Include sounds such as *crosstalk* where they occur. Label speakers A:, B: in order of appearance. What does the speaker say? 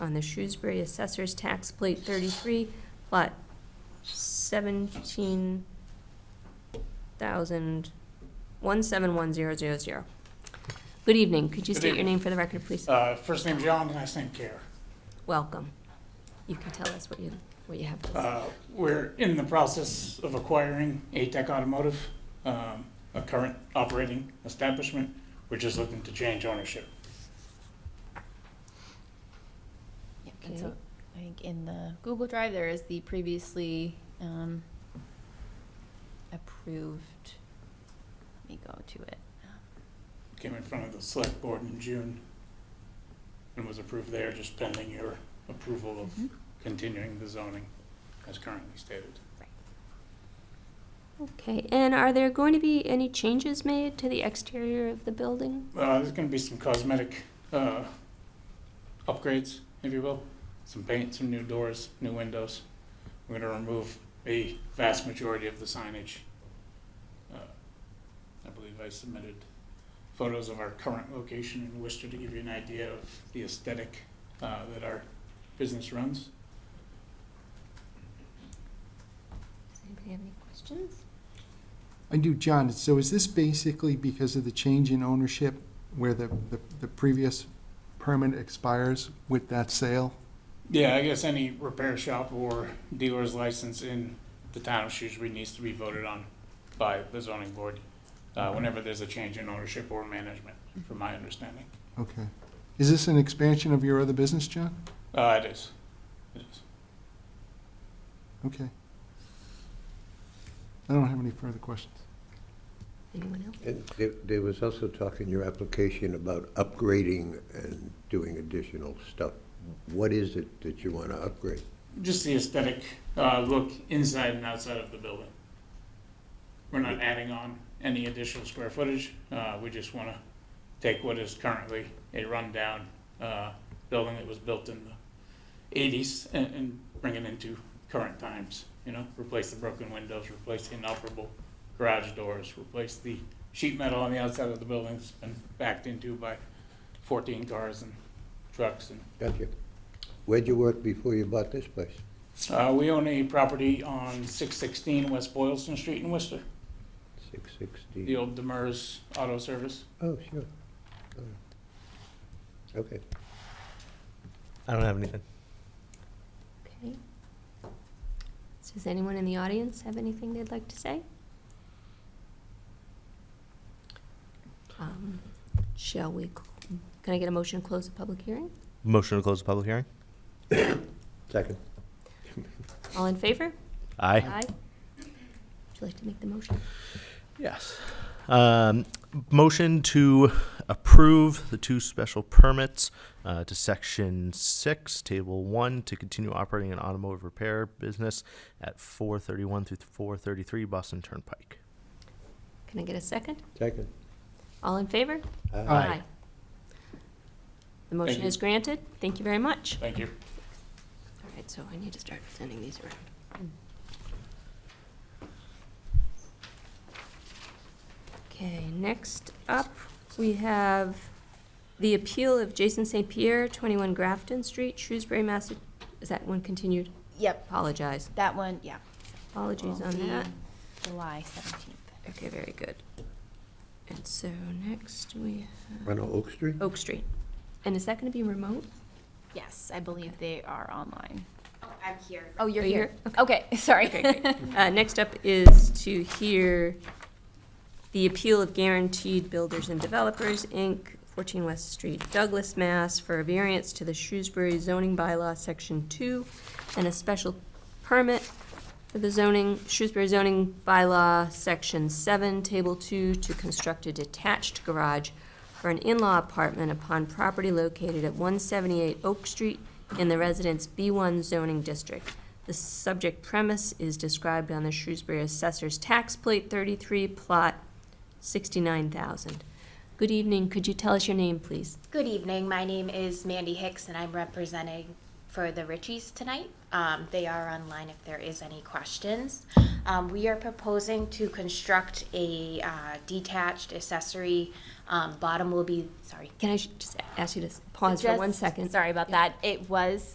A: on the Shrewsbury Assessor's Tax Plate 33, Lot 17,171,000. Good evening. Could you
B: Good
A: state your
B: evening.
A: name for the record, please?
B: Uh, First name John, last name Care.
A: Welcome. You can tell us what you, what you have. to say.
B: Uh, We're in the process of acquiring ATEC Automotive, um, a current operating establishment. We're just looking to change ownership.
C: Yeah, and
A: Okay.
C: so I think in the Google Drive, there is the previously um, approved, let me go to it.
B: Came in front of the select board in June and was approved there, just pending your approval
A: Mm-hmm.
B: of continuing the zoning as currently stated.
A: Okay, and are there going to be any changes made to the exterior of the building?
B: Uh, There's going to be some cosmetic uh, upgrades, if you will. Some paint, some new doors, new windows. We're going to remove a vast majority of the signage. Uh, I believe I submitted photos of our current location in Worcester to give you an idea of the aesthetic uh, that our business runs.
A: Does anybody have any questions?
D: I do, John, so is this basically because of the change in ownership where the, the, the previous permit expires with that sale?
B: Yeah, I guess any repair shop or dealer's license in the town of Shrewsbury needs to be voted on by the zoning board, uh, whenever there's a change in ownership or management, from my understanding.
D: Okay. Is this an expansion of your other business, John?
B: Uh, it is, it is.
D: Okay. I don't have any further questions.
A: Anyone else?
E: And there- There was also talk in your application about upgrading and doing additional stuff. What is it that you want to upgrade?
B: Just the aesthetic, uh, look inside and outside of the building. We're not adding on any additional square footage, uh, we just wanna take what is currently a rundown, uh, building that was built in the eighties and, and bring it into current times, you know? Replace the broken windows, replace the inoperable garage doors, replace the sheet metal on the outside of the building that's been backed into by fourteen cars and trucks and
E: Gotcha. Where'd you work before you bought this place?
B: Uh, we own a property on six sixteen West Boylston Street in Worcester,
E: Six
B: the
E: sixty?
B: old Demers Auto Service.
E: Oh, sure. Oh. Okay.
F: I don't have anything.
A: Okay. Does anyone in the audience have anything they'd like to say? Um, Shall we, cl- can I get a motion to close the public hearing?
F: Motion to close the public hearing?
E: Second.
A: All in favor?
F: Aye.
A: Would you like to make the motion?
F: Yes. Um, motion to approve the two special permits uh, to section six, table one, to continue operating an automotive repair business at four thirty-one through four thirty-three Boston Turnpike.
A: Can I get a second?
E: Second.
A: All in favor?
E: Uh,
D: Aye.
A: The motion
B: Thank you.
A: is granted. Thank you very much.
B: Thank you.
A: All right, so I need to start sending these around. Okay, next up, we have the appeal of Jason St. Pierre, 21 Grafton Street, Shrewsbury, Massa, is that one continued?
C: Yep,
A: Apologize,
C: that one, yeah.
A: apologies
C: will
A: on
C: be
A: that.
C: July seventeenth.
A: Okay, very good. And so next we have
E: On Oak Street?
A: Oak Street. And is that going to be remote?
C: Yes, I believe they are online.
G: Oh, I'm here.
C: Oh, you're
A: Are you
C: here? Okay, *laughs* sorry.
A: Okay, great. Uh, Next up is to hear the appeal of Guaranteed Builders and Developers, Inc., 14 West Street, Douglas, Mass., for a variance to the Shrewsbury zoning bylaw, Section 2, and a special permit for the zoning, Shrewsbury zoning bylaw, Section 7, Table 2, to construct a detached garage for an in-law apartment upon property located at 178 Oak Street in the Residence B1 zoning district. The subject premise is described on the Shrewsbury Assessor's Tax Plate 33, Plot 69,000. Good evening, could you tell us your name, please?
G: Good evening. My name is Mandy Hicks, and I'm representing for the Richies tonight. Um, they are online if there is any questions. Um, we are proposing to construct a uh, detached accessory. Um, bottom will be, sorry,
A: Can I sh- just ask you to s- pause for one
C: Suggest-
A: second?
C: Sorry about that. It was